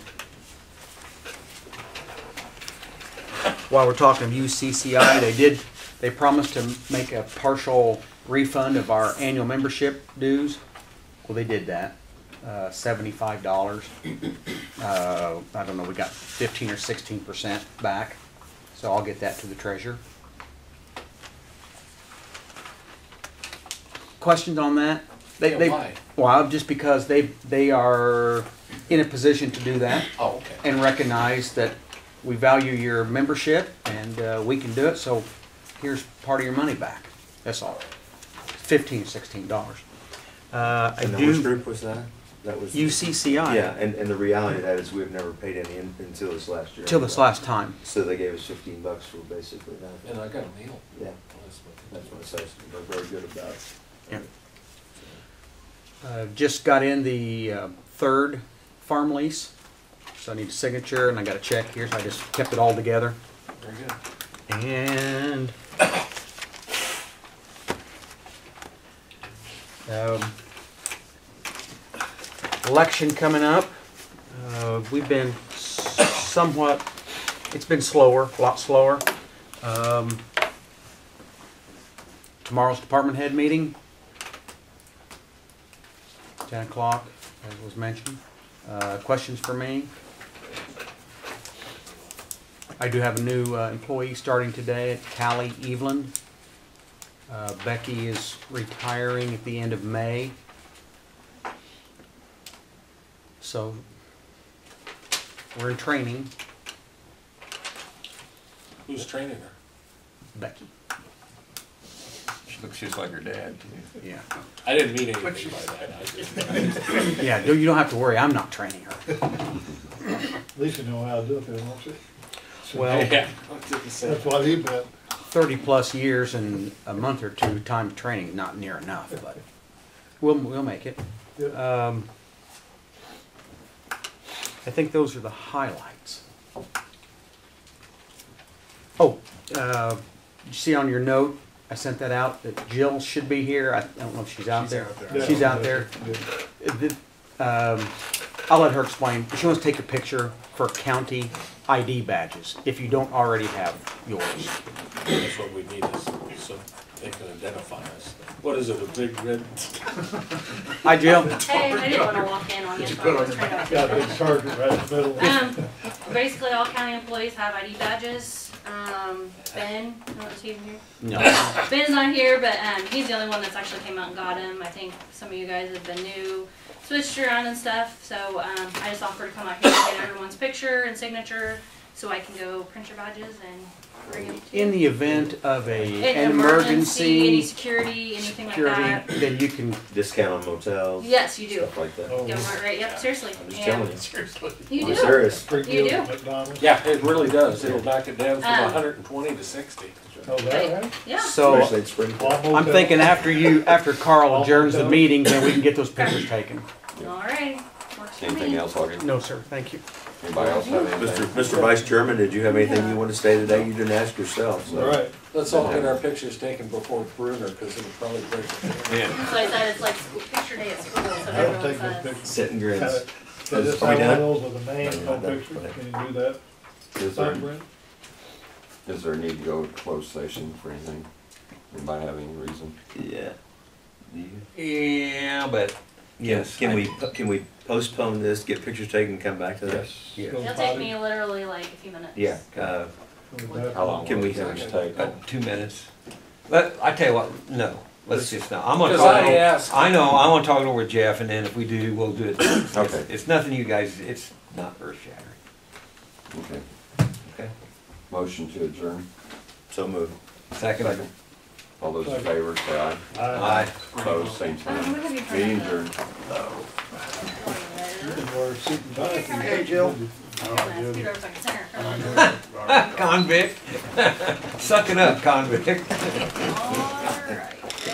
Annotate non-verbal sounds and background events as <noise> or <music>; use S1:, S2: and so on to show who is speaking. S1: while we're talking of UCCI, they did, they promised to make a partial refund of our annual membership dues. Well, they did that, uh, seventy-five dollars. Uh, I don't know, we got fifteen or sixteen percent back, so I'll get that to the treasurer. Questions on that? They,
S2: Yeah,
S1: they,
S2: why?
S1: well, just because they, they are in a position to do that
S2: Oh, okay.
S1: and recognize that we value your membership and uh, we can do it, so here's part of your money back. That's all. Fifteen, sixteen dollars. Uh, I
S3: And then which
S1: do,
S3: group was that? That was.
S1: UCCI.
S3: Yeah, and, and the reality of that is we've never paid any in- until this last year.
S1: Till this last time.
S3: So they gave us fifteen bucks for basically that.
S2: And I got a meal.
S3: Yeah,
S2: That's what-
S3: that's what it says. They're very good about. it.
S1: Yeah. Uh, Just got in the uh, third farm lease, so I need a signature and I got a check here, so I just kept it all together.
S2: Very good.
S1: And um, election coming up. Uh, we've been s- somewhat. It's been slower, a lot slower. Um, tomorrow's department head meeting, ten o'clock, as was mentioned. Uh, questions for me? I do have a new uh, employee starting today, Callie Evelyn. Uh, Becky is retiring at the end of May. So we're in training,
S2: Who's training her?
S1: Becky.
S4: She looks just like her dad, too.
S1: Yeah.
S2: I didn't mean anything by that. I just-
S1: Yeah, no, you don't have to worry, I'm not training her.
S5: At least you know how to do it, then, won't you?
S1: Well,
S2: <laughs> <laughs> Yeah, I didn't say
S5: That's
S2: that.
S5: what he meant.
S1: thirty-plus years and a month or two time of training, not near enough, but we'll, we'll make it.
S5: Yep.
S1: Um, I think those are the highlights. Oh, uh, you see on your note, I sent that out, that Jill should be here. I don't know if she's out there. She's out there.
S5: Yeah.
S1: Uh, the- um, I'll let her explain. She wants to take a picture for county ID badges, if you don't already have yours.
S2: That's what we need is so they can identify us. What is it, a big red?
S1: Hi, Jill.
S6: Hey, I didn't wanna walk in on you, so I was trying to.
S5: Got a big sergeant right in the middle.
S6: Um, basically, all county employees have ID badges. Um, Ben, I don't know if he's here.
S1: No.
S6: Ben's not here, but um, he's the only one that's actually came out and got him. I think some of you guys have been new, switched around and stuff. So um, I just offered to come out here and get everyone's picture and signature, so I can go print your badges and bring them to.
S1: In the event of a,
S6: An
S1: an
S6: any
S1: emergency,
S6: security, anything like that.
S1: security, then you can,
S3: Discount on motels.
S6: Yes, you do.
S3: Stuff like that.
S5: Oh,
S6: Yeah, right, right, yep, seriously.
S3: I'm just
S6: Yeah.
S3: telling you.
S2: Seriously.
S6: You
S3: I'm
S6: do.
S3: serious.
S5: Free
S6: You
S5: deal at
S6: do.
S5: McDonald's.
S2: Yeah, it really does. It'll knock it down from
S6: Um,
S2: hundred and twenty to sixty.
S5: Oh, that, right?
S6: Yeah.
S1: so
S3: Especially in spring.
S5: Long
S1: I'm
S5: motel.
S1: thinking after you, after Carl adjourns the
S5: All
S1: meeting, then we can get those pictures taken.
S6: All right. Works for
S3: Anything
S6: me.
S3: else, Augie?
S1: No, sir, thank you.
S3: Anybody else have anything? Mr. Vice Chairman, did you have anything you want to say today? You didn't ask yourself, so.
S5: All right.
S2: Let's all get our pictures taken before Bruner, because it'll probably break. the- <laughs>
S4: Yeah.
S6: So I said it's like school, picture day at school, so
S5: I don't
S6: everyone
S5: take no
S6: says.
S5: pictures.
S3: Sit and
S5: Kind
S3: grins.
S5: of- They just
S3: Are we
S5: have one of
S3: done?
S5: those with a
S3: No,
S5: name, no
S3: we're not
S5: picture.
S3: done.
S5: Can you do that?
S4: Is there,
S5: Sign,
S4: is there a need to go to closed session for anything? Anybody have any reason?
S3: Yeah.
S4: Yeah, but. Yes.
S3: Can
S4: I-
S3: we, can we postpone this, get pictures taken, come back to that?
S4: Yes.
S5: Brent? Go
S6: It'll take
S5: potty.
S6: me literally like a few minutes.
S3: Yeah, uh,
S5: Go back.
S4: How long
S3: Can
S4: will
S3: we-
S4: it take?
S7: About two minutes. But I tell you what, no, let's just not. I'm gonna
S2: Because
S7: talk.
S2: I
S7: it over-
S2: asked.
S7: I know, I wanna talk it over with Jeff and then if we do, we'll do it. It's-
S4: Okay.
S7: It's nothing you guys, it's not earth shattering.
S4: Okay.
S3: okay,
S4: Motion to adjourn.
S3: so move.
S7: Second.
S4: All those in favor, say aye.
S7: Aye.
S4: Opposed, same
S6: Um,
S4: sign.
S6: what have you
S4: Meeting
S6: heard
S4: adjourned.
S6: of the-
S5: Wear a suit and tie if you-
S6: Hey,
S5: Jill. Oh,
S6: Yeah, it's Peter Buck's center.
S7: Convict. Suck it up, convict.
S6: Oh,